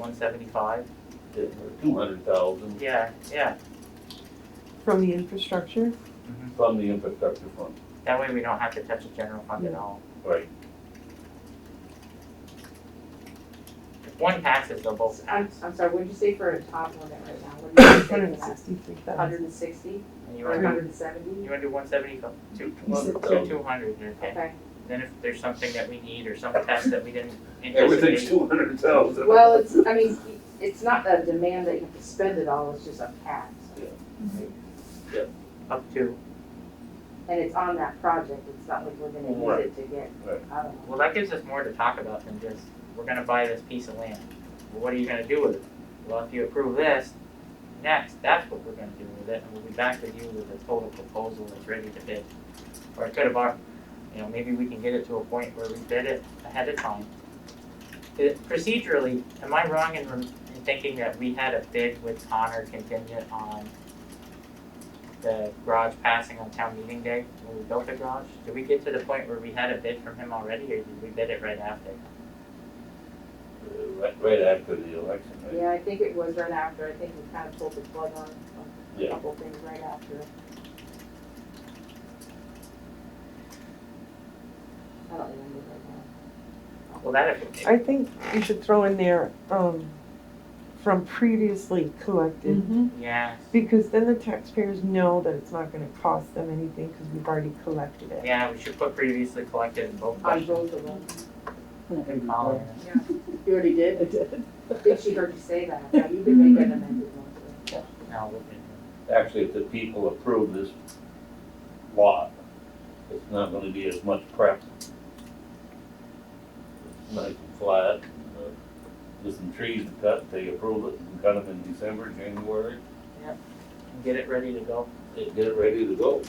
one seventy-five? Two hundred thousand Yeah, yeah, From the infrastructure? from the infrastructure fund, that way we don't have to touch the general fund at all. right? If one passes, they'll both I'm, pass. I'm sorry, what'd you say for a top limit right now? What did you say Hundred and for that? sixty-three Hundred thousand. and sixty And you or wanna, hundred and seventy? you wanna do one seventy, two, well, said two so. two hundred, you're okay. Okay, Then if there's something that we need or some test that we didn't Everything's anticipate, two hundred thousand. well, it's, I mean, it's not a demand that you have to spend it all, it's just a cap. up to, And it's on that project, it's not like we're gonna Right. use it to get, Right. I don't know. well, that gives us more to talk about than just, we're gonna buy this piece of land. Well, What are you gonna do with it? Well, if you approve this, next, that's what we're gonna do with it, and we'll be back with you with a total proposal that's ready to bid. Or it could have, our- you know, maybe we can get it to a point where we bid it ahead of time. It- Procedurally, am I wrong in rem- in thinking that we had a bid with Connor contingent on the garage passing on town meeting day when we built the garage? Did we get to the point where we had a bid from him already, or did we bid it right after? Right, right after the election, right? Yeah, I think it was right after, I think we kind of pulled the plug on on a Yeah. couple things right after. I don't remember right Well, that if, I think you should throw in there, um, from previously collected, Mm-hmm. yeah, because then the taxpayers know that it's not gonna cost them anything, because we've already collected it. yeah, we should put previously collected in both now. On questions. both of them. Good call. You already did? I did. I think she heard you say that, Yeah, you can make an amended one. No, we didn't. Actually, if the people approve this lot, it's not gonna be as much prep. It's Nice and flat, uh, there's some trees to cut, they approve it, and cut them in December, January, get it ready to go. they get it ready to go.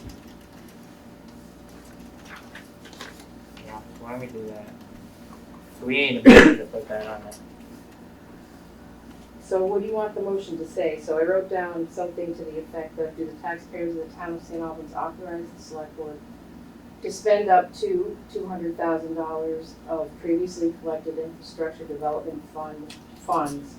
Yeah, why don't we do that? So we ain't able to put that on there. So what do you want the motion to say? So I wrote down something to the effect of, do the taxpayers of the town of St. Albans authorize the select board to spend up to two hundred thousand dollars of previously collected infrastructure development fund, funds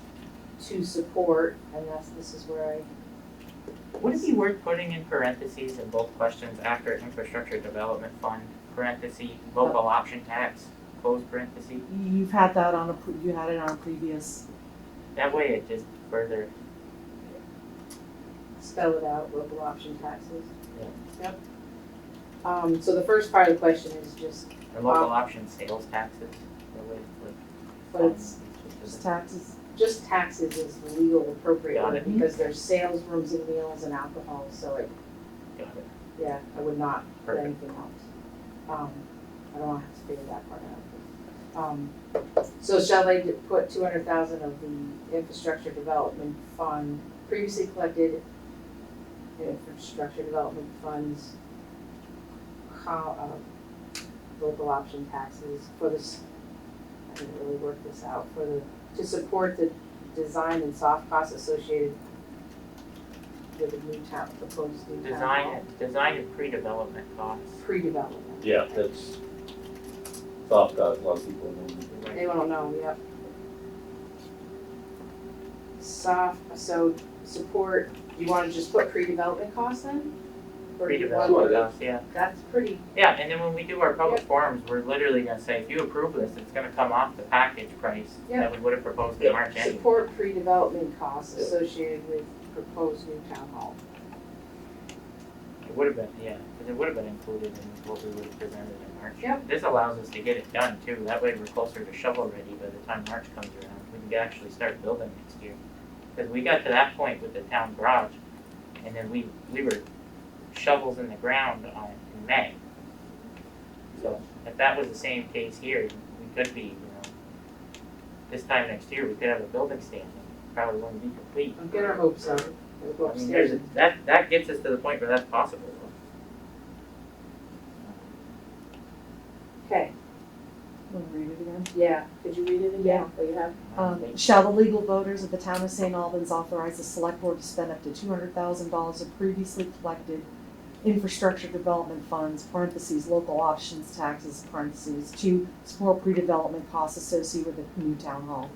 to support, and that's, this is where I, Would it be worth putting in parentheses in both questions after infrastructure development fund, parentheses, local option tax, close parentheses? You've had that on a, pre- you had it on a previous, That way it just further, spell it out, local option taxes. Yeah. Yep. Um, so the first part of the question is just, or local Wow. option sales taxes, that way it's like. but it's just taxes. just taxes is the legal appropriate Got one it. because there's sales, rooms and meals and alcohol, so it, Got it. yeah, I would not put Perfect. anything else. Um, I don't wanna have to figure that part out. Um, so shall they d- put two hundred thousand of the infrastructure development fund, previously collected infrastructure development funds, how, uh, local option taxes for this, I didn't really work this out, for the, to support the design and soft costs associated with the new town, proposed new town hall Design, design and pre-development costs. pre-development. Yeah, that's soft cost, a lot of people don't do that. They don't know, yep. Soft, so support, you wanna just put pre-development costs in? Or do you want- Pre-development costs, yeah. That's pretty, Yeah, and then when we do our public forums, we're literally gonna say, if you approve this, it's gonna come off the package price Yeah. that we would have proposed in March anyway. support pre-development costs associated with proposed new town hall. It would have been, yeah, because it would have been included in what we would have presented in March. Yep. This allows us to get it done too, that way we're closer to shovel ready by the time March comes around, we can actually start building next year. Because we got to that point with the town garage, and then we, we were shovels in the ground on, in May. So, if that was the same case here, we could be, you know, this time next year, we could have a building standing, probably wouldn't be complete. Don't Get our hopes up, we'll go I mean, there's, upstairs. a- that, that gets us to the point where that's possible. Okay, Want to read it again? yeah, could you read it again? Yeah. Oh, you have? Um, shall the legal voters of the town of St. Albans authorize the select board to spend up to two hundred thousand dollars of previously collected infrastructure development funds, parentheses, local options taxes, parentheses, to support pre-development costs associated with the new town hall?